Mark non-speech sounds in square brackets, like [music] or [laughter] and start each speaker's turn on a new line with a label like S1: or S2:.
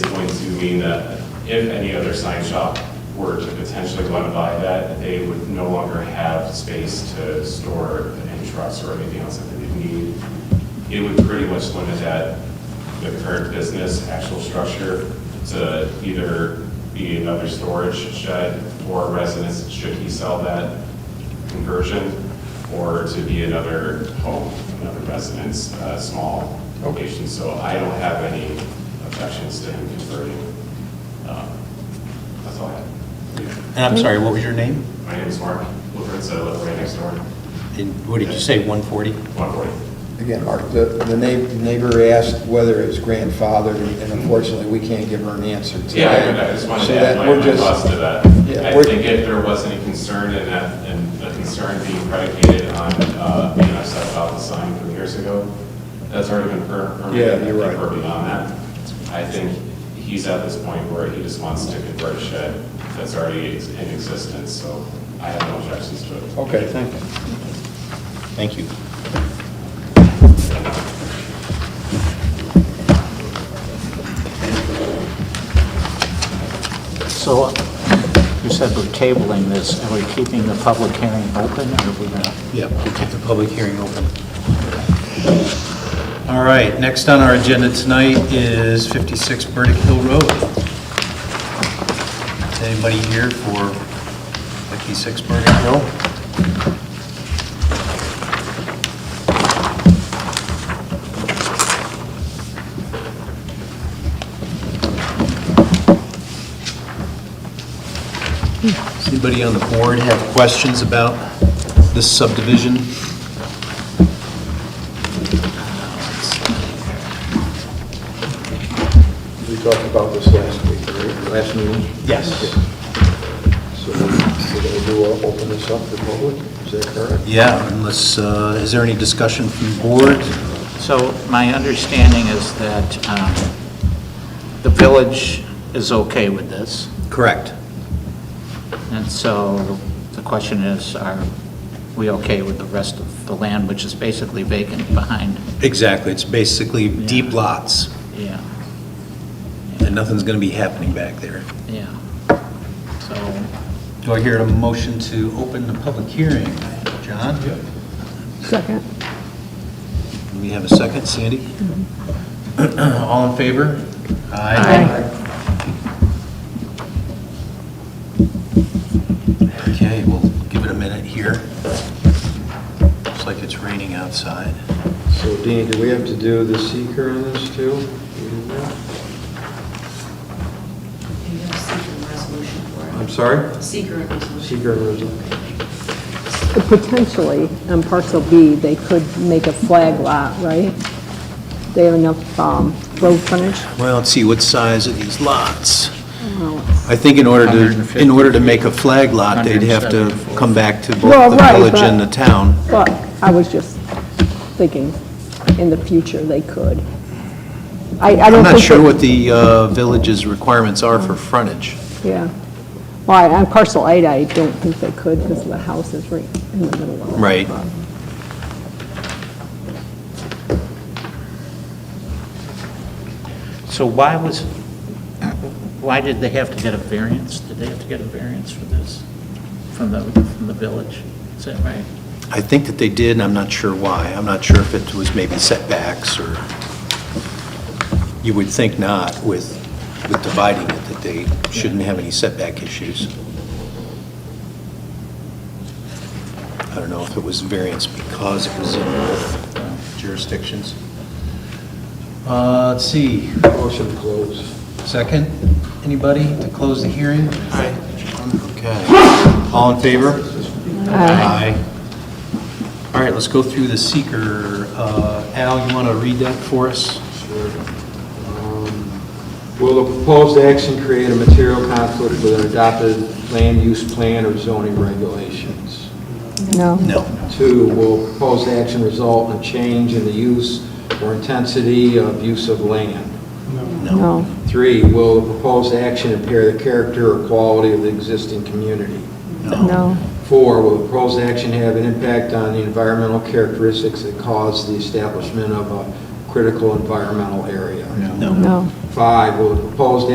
S1: mean that if any other sign shop were to potentially want to buy that, they would no longer have space to store any trucks or anything else that they would need. It would pretty much limit that, the current business, actual structure, to either be another storage shed for residents, should he sell that conversion, or to be another home, another residence, uh, small location. So I don't have any objections to him converting. Um, That's all I have.
S2: And I'm sorry, what was your name?
S1: My name is Mark Lefritz, I live right next door,
S2: And what did you say, 140?
S1: 140.
S3: Again, Mark, the the neigh- neighbor asked whether it's grandfathered, and unfortunately, we can't give her an answer today.
S1: Yeah, I- I just wanted
S3: So
S1: to add
S3: that
S1: my
S3: we're
S1: my
S3: just-
S1: thoughts to that.
S3: Yeah,
S1: I
S3: we're-
S1: think if there was any concern in that, and the concern being predicated on, uh, you know, I said about the sign from years ago, that's already been per-
S3: Yeah,
S1: permitted, I
S3: you're
S1: think
S3: right.
S1: we're beyond that. I think he's at this point where he just wants to convert a shed that's already ex- in existence, so I have no objections to it.
S3: Okay, thank you.
S2: Thank you.
S4: So you said we're tabling this, and we're keeping the public hearing open, or are we gonna?
S2: Yeah, we'll keep the public hearing open. All right, next on our agenda tonight is 56 Burdick Hill Road. Is Anybody here for 56 Burdick Hill? Does anybody on the board have questions about this subdivision?
S3: We talked about this last week, right? Last meeting?
S2: Yes.
S3: So we're going to do, uh, open this up to public, is that correct?
S2: Yeah, unless, uh, is there any discussion from the board?
S4: So my understanding is that um, the village is okay with this,
S2: Correct.
S4: and so the question is, are we okay with the rest of the land, which is basically vacant behind?
S2: Exactly. It's basically deep lots,
S4: Yeah,
S2: and nothing's going to be happening back there.
S4: yeah. So,
S2: Do I hear a motion to open the public hearing? John?
S5: Second.
S2: We have a second. Sandy? [clears throat] All in favor? Okay, we'll give it a minute here. Looks like it's raining outside.
S3: So Dean, do we have to do the seeker on this too?
S6: You have secret resolution for it.
S3: I'm sorry?
S6: Secret resolution.
S3: Seeker resolution.
S5: Potentially, on parcel B, they could make a flag lot, right? They have enough um, road frontage?
S2: Well, let's see, what size are these lots?
S5: Well,
S2: I think in order to, in order to make a flag lot, they'd have to
S4: 150.
S2: come back to
S5: Well,
S2: both the
S5: right,
S2: village and the
S5: but-
S2: town.
S5: But I was just thinking, in the future, they could. I, I
S2: I'm
S5: don't think.
S2: not sure
S5: that-
S2: what the uh, village's requirements are for frontage.
S5: Yeah. Well, I- on parcel eight, I don't think they could because the house is right in the middle of it.
S2: Right.
S5: but-
S4: so why was, why did they have to get a variance? Did they have to get a variance for this, from the, from the village? Is that right?
S2: I think that they did, and I'm not sure why. I'm not sure if it was maybe setbacks or, you would think not with, with dividing it, that they shouldn't have any setback issues. I don't know if it was variance because it was in both jurisdictions. Uh, Let's see,
S3: Motion to close.
S2: Second, anybody to close the hearing? Aye. Okay. All in favor? Aye. All right, let's go through the seeker. Uh, Al, you want to read that for us?
S3: Sure. Um, Will the proposed action create a material conflict with an adopted land use plan or zoning regulations?
S5: No.
S2: No.
S3: Two, will proposed action result in a change in the use or intensity of use of land?
S5: No.
S3: Three, will the proposed action impair the character or quality of the existing community?
S5: No.
S3: Four, will the proposed action have an impact on the environmental characteristics that cause the establishment of a critical environmental area?
S5: No.
S3: Five, will the proposed